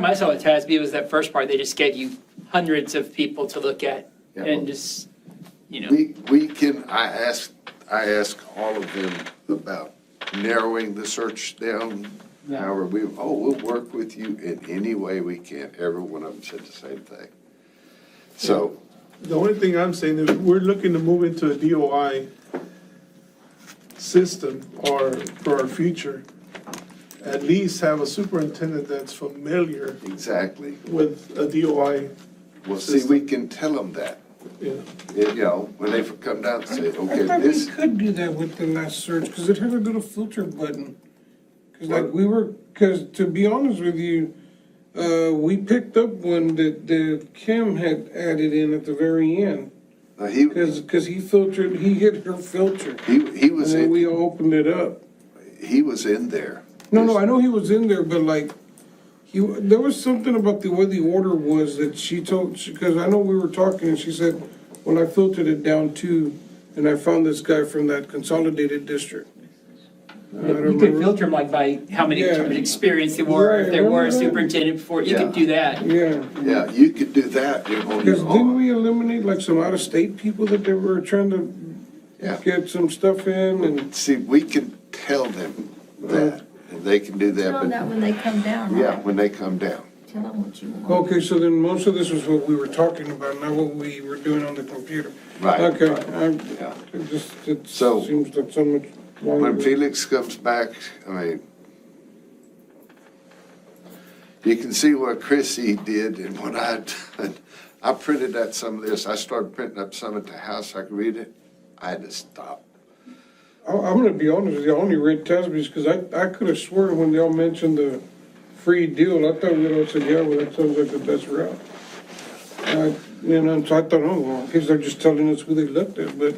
problem I saw at TASB was that first part, they just gave you hundreds of people to look at Yeah, and well- just, you know. We, we can, I ask, I ask all of them about narrowing the search down. Yeah. However, we, oh, we'll work with you in any way we can. Every one of them said the same thing. So, The only thing I'm saying is we're looking to move into a DOI system or for our future. At least have a superintendent that's familiar exactly. with a DOI, Well, see, we can tell them that, you know. you know, when they come down and say, I okay, thought we this, could do that with the last search, because it had a little filter button. Because like we were, because to be honest with you, uh, we picked up one that, that Kim had added in at the very end. now, he, Because, he filtered, he hit her filter, he, he and was then we in, all opened it up. he was in there. No, no, I know he was in there, but like, he, there was something about the way the order was that she told, because I know we were talking, and she said, well, I filtered it down too, and I found this guy from that consolidated district. I don't You could remember. filter them like by how many Yeah. terms of experience they were, if Right, they were a right, right. superintendent before, you could Yeah. do that. Yeah, Yeah, you could do that, you're on because your didn't own. we eliminate like some out-of-state people that they were trying to Yeah. get some stuff in, and See, we can tell them that, and they can do that, Tell them that but, when they come down, yeah, right? when they come down. Tell them what you want. Okay, so then most of this was what we were talking about, not what we were doing on the computer. Right, Okay, right, yeah. I, it just, it So- seems like so much. When Felix comes back, I mean, you can see what Chrissy did and what I done. I printed out some of this. I started printing up some at the house. I could read it. I had to stop. I, I'm gonna be honest with you, I only read Tasby's, because I, I could have sworn when y'all mentioned the free deal, I thought we'd all said, yeah, well, that sounds like the best route. I, you know, so I thought, oh, well, because they're just telling us who they looked at, but,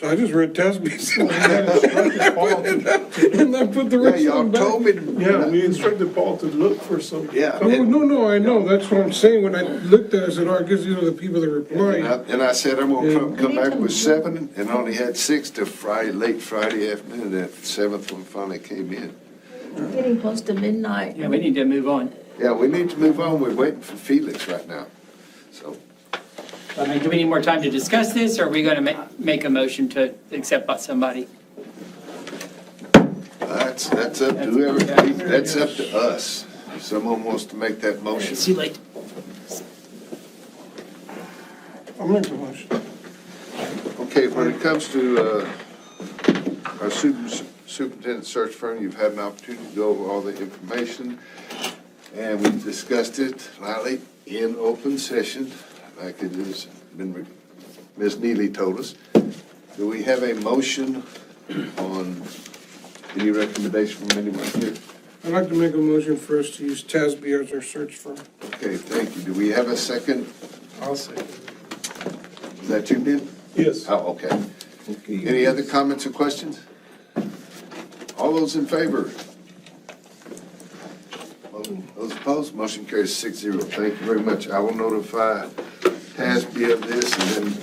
so I just read Tasby's. And I put the Yeah, rest on y'all back. told me. Yeah, to- we instructed Paul to look for some. Yeah. Oh, and- no, no, I know, that's what I'm saying, when I looked at it, I said, oh, I guess these are the people that And I, replied. and I said, I'm gonna come, come back with Yeah. seven and only had six to Friday, late Friday afternoon. That seventh one finally came in. Getting close to midnight. Yeah, we need to move on. Yeah, we need to move on. We're waiting for Felix right now. So, I mean, do we need more time to discuss this, or are we going to ma- make a motion to accept by somebody? That's, that's up to whoever, that's up to us. If someone wants to make that motion. It's too late. I'm making a motion. Okay, when it comes to uh, our super- superintendent search firm, you've had an opportunity to go over all the information, and we discussed it lightly in open session, like it has been, re- Ms. Neely told us. Do we have a motion on any recommendation from anyone here? I'd like to make a motion for us to use Tasby as our search firm. Okay, thank you. Do we have a second? I'll say. Is that you, Ben? Yes. Oh, okay. Any other comments or questions? All those in favor? Those opposed, motion carries six zero. Thank you very much. I will notify TASB of this and then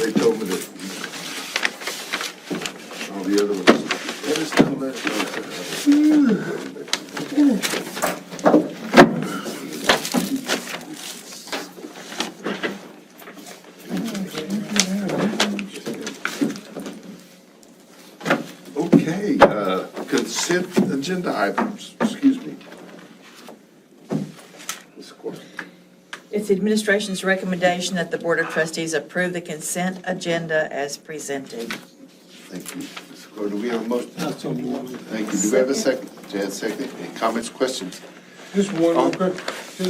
they told me that all the other ones. Let us know, let us know. Okay, uh, consent agenda items, excuse me. Ms. Corson. It's the administration's recommendation that the Board of Trustees approve the consent agenda as presented. Thank you. Ms. Corr, do we have a motion? Thank you. Do we have a second? Jan, second. Any comments, questions? Just one, Oh. okay.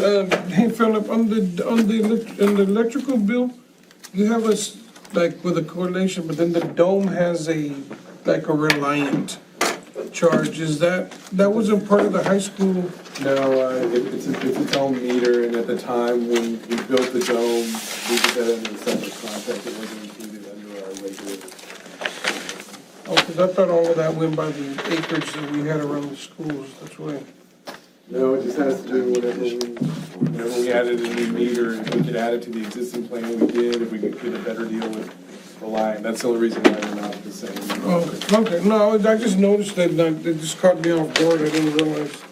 Um, Hey, Philip, on the, on the, elec- on the electrical bill, you have us, like, with a correlation, but then the dome has a, like, a reliant charge. Is that, that wasn't part of the high school? No, uh, it- it's, a- it's its own meter, and at the time when we built the dome, we did that under a separate contract, it wasn't included under our regular. Oh, because I thought all of that went by the acreage that we had around the schools, that's why. No, it just has to do whatever we, whenever we added a new meter, if we could add it to the existing plan we did, if we could get a better deal with the line, that's the only reason why we're not the same. Oh, okay, no, I just noticed that, and I- it just caught me off guard, I didn't realize.